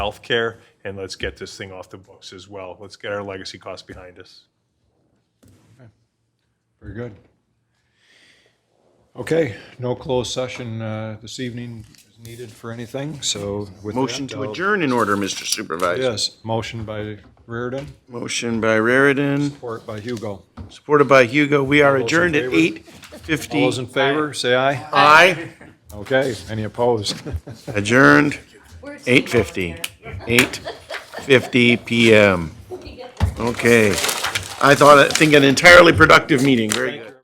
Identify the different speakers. Speaker 1: healthcare, and let's get this thing off the books as well. Let's get our legacy costs behind us.
Speaker 2: Very good. Okay, no closed session uh, this evening is needed for anything, so with that.
Speaker 3: Motion to
Speaker 2: I'll-
Speaker 3: adjourn in order, Mr. Supervisor.
Speaker 2: Yes, motion by Reardon,
Speaker 3: Motion by Raritan,
Speaker 2: support by Hugo.
Speaker 3: supported by Hugo. We are
Speaker 2: All those in
Speaker 3: adjourned at
Speaker 2: favor?
Speaker 3: eight
Speaker 2: All those
Speaker 3: fifty.
Speaker 2: in favor, say aye.
Speaker 3: Aye,
Speaker 2: Okay, any opposed?
Speaker 3: adjourned, eight fifty, eight fifty PM. Okay. I thought, I think an entirely productive meeting. Very good.